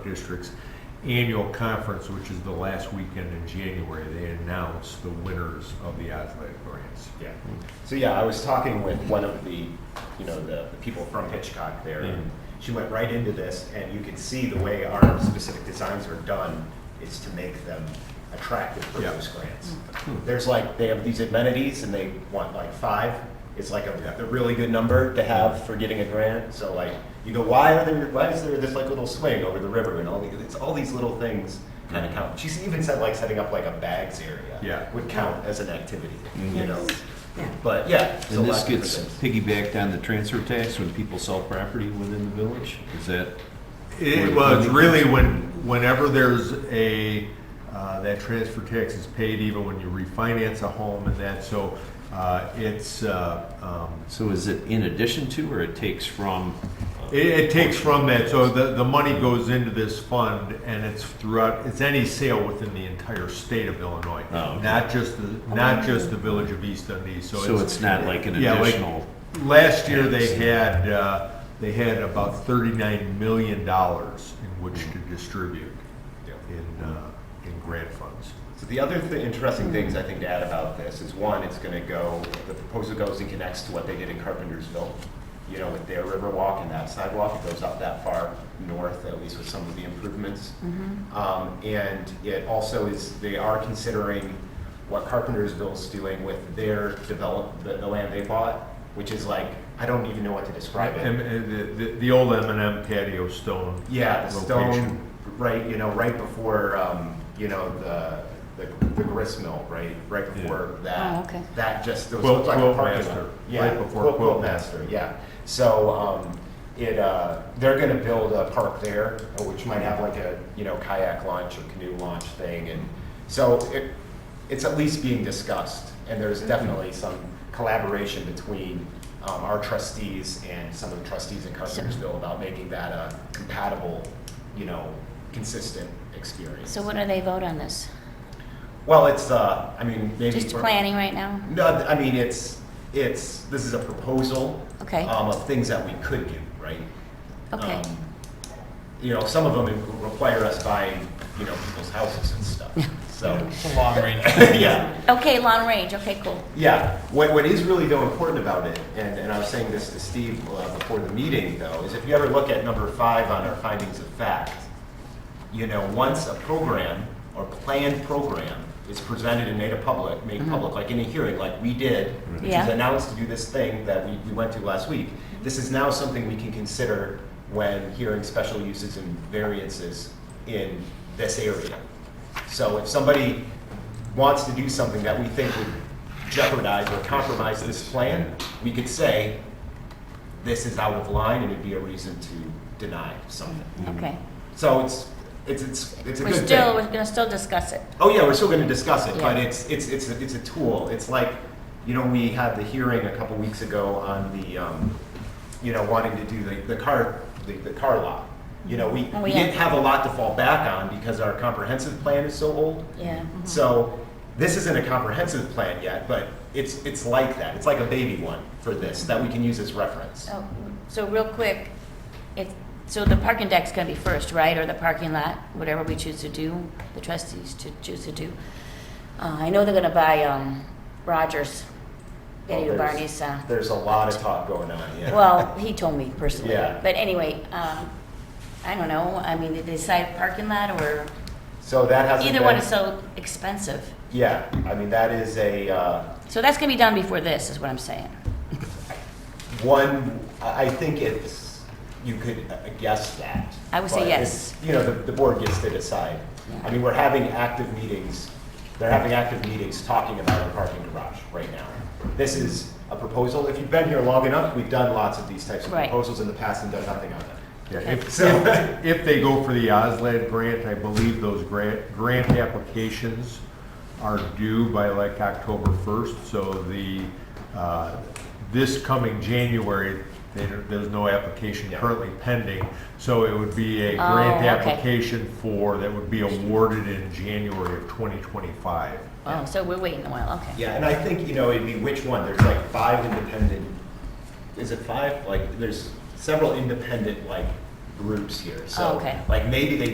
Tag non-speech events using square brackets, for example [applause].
district's annual conference, which is the last weekend in January. They announce the winners of the athletic grants. Yeah. Mm. So yeah, I was talking with one of the, you know, the, the people from Hitchcock there, and she went right into this, and you could see the way our specific designs are done is to make them attractive for Yeah. those grants. There's like they have these amenities, and they want like five. It's like a, a really good number to have for getting a grant. So like you go, why are there? Why is there this like little swing over the river and all these? It's all these little things kind of count. She's even said like setting up like a bags area Yeah. would count as an activity. You Yes. know. Yeah. But yeah. so And this lots of gets different things. piggybacked on the transfer tax when people sell property within the village? Is that, It was really when, whenever there's a, uh, that transfer tax is paid even when you refinance a home and that, so uh, it's, uh, um, so is it in addition to, or it takes from? It, it takes from that, so the, the money goes into this fund, and it's throughout, it's any sale within the entire state of Illinois. Oh, okay. Not just the, not just the village of East Dundee, so it's. So it's not like an Yeah, like- additional? Last year, they had, uh, they had about thirty-nine million dollars in which to distribute Yeah. in, uh, in grant funds. So the other th- interesting things I think to add about this is one, it's going to go, the proposal goes and connects to what they did in Carpentersville. You know, with their river walk and that sidewalk, it goes up that far north, at least with some of the improvements. Um, and it also is, they are considering what Carpentersville's doing with their develop, the, the land they bought, which is like, I don't even know what to describe it. And, and the, the- the old M and M patio stone. Yeah, the location. stone, right, you know, right before, um, you know, the, the, the grist mill, right, right before that. Oh, okay. That just, those Quilt- looked like a quilt parking master, lot. right Yeah, before quilt- quilt Quilt master, yeah. So, um, it, uh, they're gonna build a park there, uh, which might have like a, you know, kayak launch or canoe launch thing, and so it, it's at least being discussed, and Mm-hmm. there's definitely some collaboration between, um, our trustees and some of the trustees in Carpentersville about making that a compatible, you know, consistent experience. So what do they vote on this? Well, it's, uh, I mean, maybe. Just for- planning right now? no, I mean, it's, it's, this is a proposal. Okay. Um, of things that we could do, right? Okay. Um, You know, some of them require us buying, you know, people's houses and [laughs] stuff, so. long range. [laughs] Yeah, Okay, long range, okay, cool. yeah. What, what is really though important about it, and, and I was saying this to Steve uh, before the meeting though, is if you ever look at number five on our findings of fact, you know, once a program or planned program is presented and made a public, made public, like in a hearing, like we did, which Yeah. is announced to do this thing that we, we went to last week. This is now something we can consider when hearing special uses and variances in this area. So if somebody wants to do something that we think would jeopardize or compromise this plan, we could say, this is out of line and it'd be a reason to deny something. Okay. So mm-hmm. it's, it's, it's, it's a We're good still, we're thing. gonna still discuss it. Oh, yeah, we're still gonna discuss it, but Yeah. it's, it's, it's, a- it's a tool. It's like, you know, we had the hearing a couple weeks ago on the, um, you know, wanting to do the, the car, the, the car lot. You know, we, Oh, we yeah. didn't have a lot to fall back on because our comprehensive plan is so old. Yeah. mm-hmm. So this isn't a comprehensive plan yet, but it's, it's like that. It's like a baby one for this, that we can use as reference. So, so real quick, it, so the parking deck's gonna be first, right, or the parking lot, whatever we choose to do, the trustees to choose to do. Uh, I know they're gonna buy, um, Rogers, Eddie Well, Oh, there's- Barney's, uh, [laughs] There's a lot of talk going on, yeah. Well, he told me personally. Yeah. But anyway, um, I don't know, I mean, did they decide parking lot or, So that hasn't either one been- is so expensive. Yeah, I mean, that is a, uh, So that's gonna be done before this, is what I'm saying. one, I I think it's, you could uh, guess that. I would say but yes. it's- You know, the, the board gets to decide. I mean, we're having active meetings, they're having active meetings talking about a parking garage right now. This is a proposal, if you've been here long enough, we've done lots of these types of Right. proposals in the past and done nothing on them. Yeah, if, So- if, if they go for the OSLAD grant, I believe those grant, grant applications are due by like October first, so the, uh, this coming January, there, there's no application Yeah. currently pending, so it would be a Oh, grant okay. application for, that would be awarded in January of twenty twenty-five. Oh, so we're waiting a while, okay. Yeah, and I think, you know, it'd be which one, there's like five independent, is it five? Like, there's several independent, like, groups here, so. Oh, Okay. Like, maybe they